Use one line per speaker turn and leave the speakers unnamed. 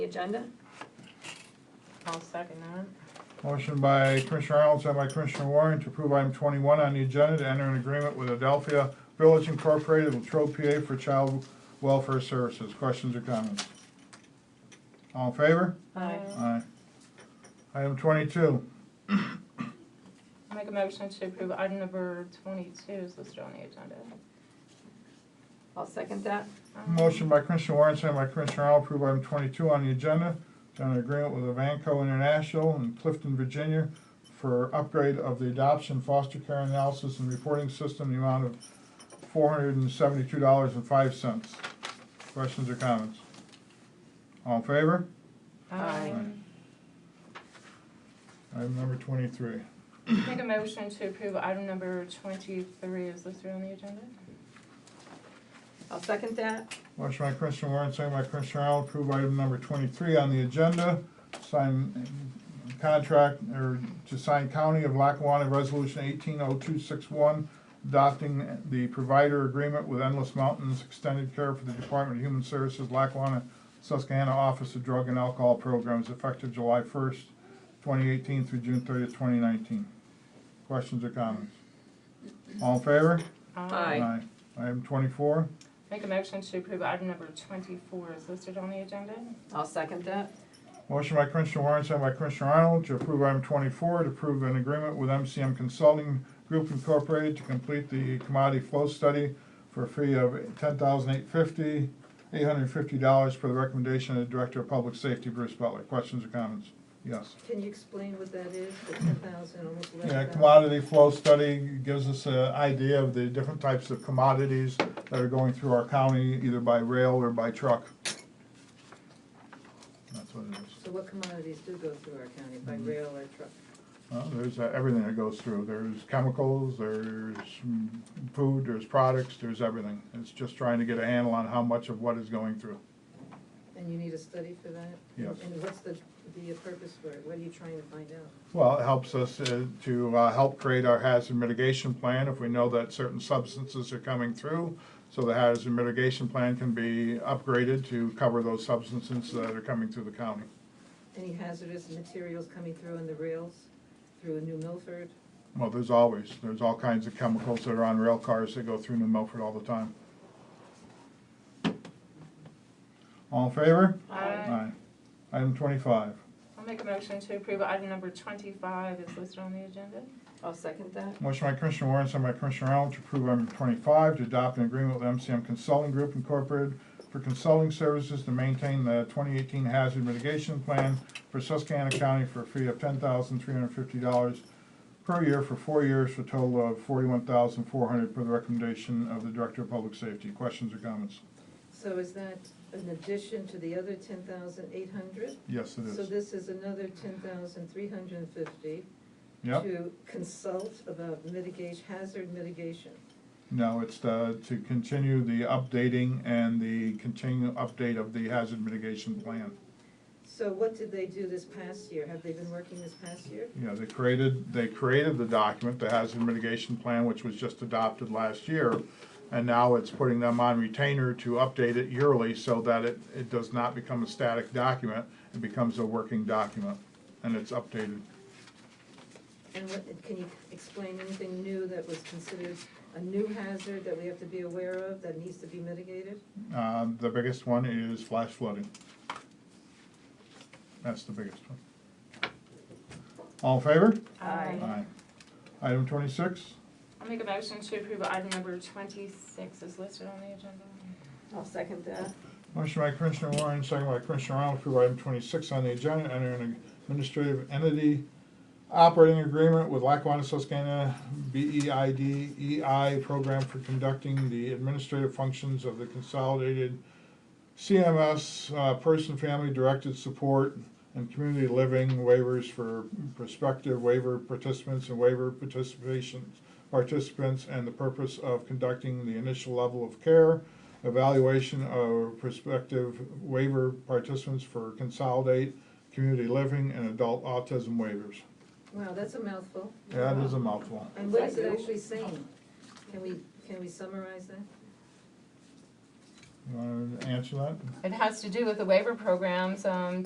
the agenda.
I'll second that.
Motion by Commissioner Arnold, sent by Commissioner Warren to approve item twenty-one on the agenda to enter an agreement with Adelphia Village Incorporated with Trope PA for child welfare services. Questions or comments? All in favor?
Aye.
Aye. Item twenty-two,
Make a motion to approve item number twenty-two is listed on the agenda.
I'll second that.
motion by Commissioner Warren, sent by Commissioner Arnold, approve item twenty-two on the agenda to enter an agreement with Avanco International in Clifton, Virginia for upgrade of the adoption foster care analysis and reporting system, in the amount of four hundred and seventy-two dollars and five cents. Questions or comments? All in favor?
Aye.
Item number twenty-three.
Make a motion to approve item number twenty-three is listed on the agenda.
I'll second that.
Motion by Commissioner Warren, second by Commissioner Arnold, approve item number twenty-three on the agenda. Sign uh, contract, or to sign County of Lackawanna Resolution eighteen oh two six one, adopting the provider agreement with Endless Mountains Extended Care for the Department of Human Services, Lackawanna, Susquehanna Office of Drug and Alcohol Programs, effective July first, twenty eighteen through June thirtieth, twenty nineteen. Questions or comments? All in favor?
Aye.
Item twenty-four.
Make a motion to approve item number twenty-four is listed on the agenda.
I'll second that.
Motion by Commissioner Warren, second by Commissioner Arnold, to approve item twenty-four, to approve an agreement with MCM Consulting Group Incorporated to complete the commodity flow study for a fee of ten thousand eight fifty, eight hundred and fifty dollars per the recommendation of the Director of Public Safety, Bruce Butler. Questions or comments? Yes.
Can you explain what that is, the ten thousand, almost eleven
Yeah,
thousand?
commodity flow study gives us an idea of the different types of commodities that are going through our county, either by rail or by truck. That's what it is.
So what commodities do go through our county, by rail or truck?
Well, there's uh, everything that goes through. There's chemicals, there's mm, food, there's products, there's everything. It's just trying to get a handle on how much of what is going through.
And you need a study for that?
Yes.
And what's the, the purpose for it, what are you trying to find out?
Well, it helps us uh, to uh, help create our hazard mitigation plan if we know that certain substances are coming through. So the hazard mitigation plan can be upgraded to cover those substances that are coming through the county.
Any hazardous materials coming through on the rails, through New Milford?
Well, there's always, there's all kinds of chemicals that are on rail cars that go through New Milford all the time. All in favor? Aye. Item twenty-five.
I'll make a motion to approve item number twenty-five is listed on the agenda.
I'll second that.
Motion by Commissioner Warren, sent by Commissioner Arnold to approve item twenty-five to adopt an agreement with MCM Consulting Group Incorporated for consulting services to maintain the twenty eighteen hazard mitigation plan for Susquehanna County for a fee of ten thousand three hundred fifty dollars per year for four years for a total of forty-one thousand four hundred per the recommendation of the Director of Public Safety. Questions or comments?
So is that an addition to the other ten thousand eight hundred?
Yes, it
So
is.
this is another ten thousand three hundred and fifty
Yep.
to consult about mitigation, hazard mitigation.
No, it's the, to continue the updating and the continue update of the hazard mitigation plan.
So what did they do this past year? Have they been working this past year?
You know, they created, they created the document, the hazard mitigation plan, which was just adopted last year. And now it's putting them on retainer to update it yearly so that it, it does not become a static document. It becomes a working document and it's updated.
And what, can you explain anything new that was considered a new hazard that we have to be aware of that needs to be mitigated?
Uh, the biggest one is flash flooding. That's the biggest one. All in favor? Aye. Item twenty-six?
I'll make a motion to approve item number twenty-six is listed on the agenda.
I'll second that.
Motion by Commissioner Warren, second by Commissioner Arnold, approve item twenty-six on the agenda, enter an administrative entity operating agreement with Lackawanna Susquehanna E BEID EI program for conducting the administrative functions of the consolidated CMS, uh, person, family, directed support, and community living waivers for prospective waiver participants and waiver participations, participants, and the purpose of conducting the initial level of care, evaluation of prospective waiver participants for consolidate, community living, and adult autism waivers.
Wow, that's a mouthful.
That is a mouthful.
And what is it actually saying? Can we, can we summarize that?
You wanna answer that?
It has to do with the waiver programs, um,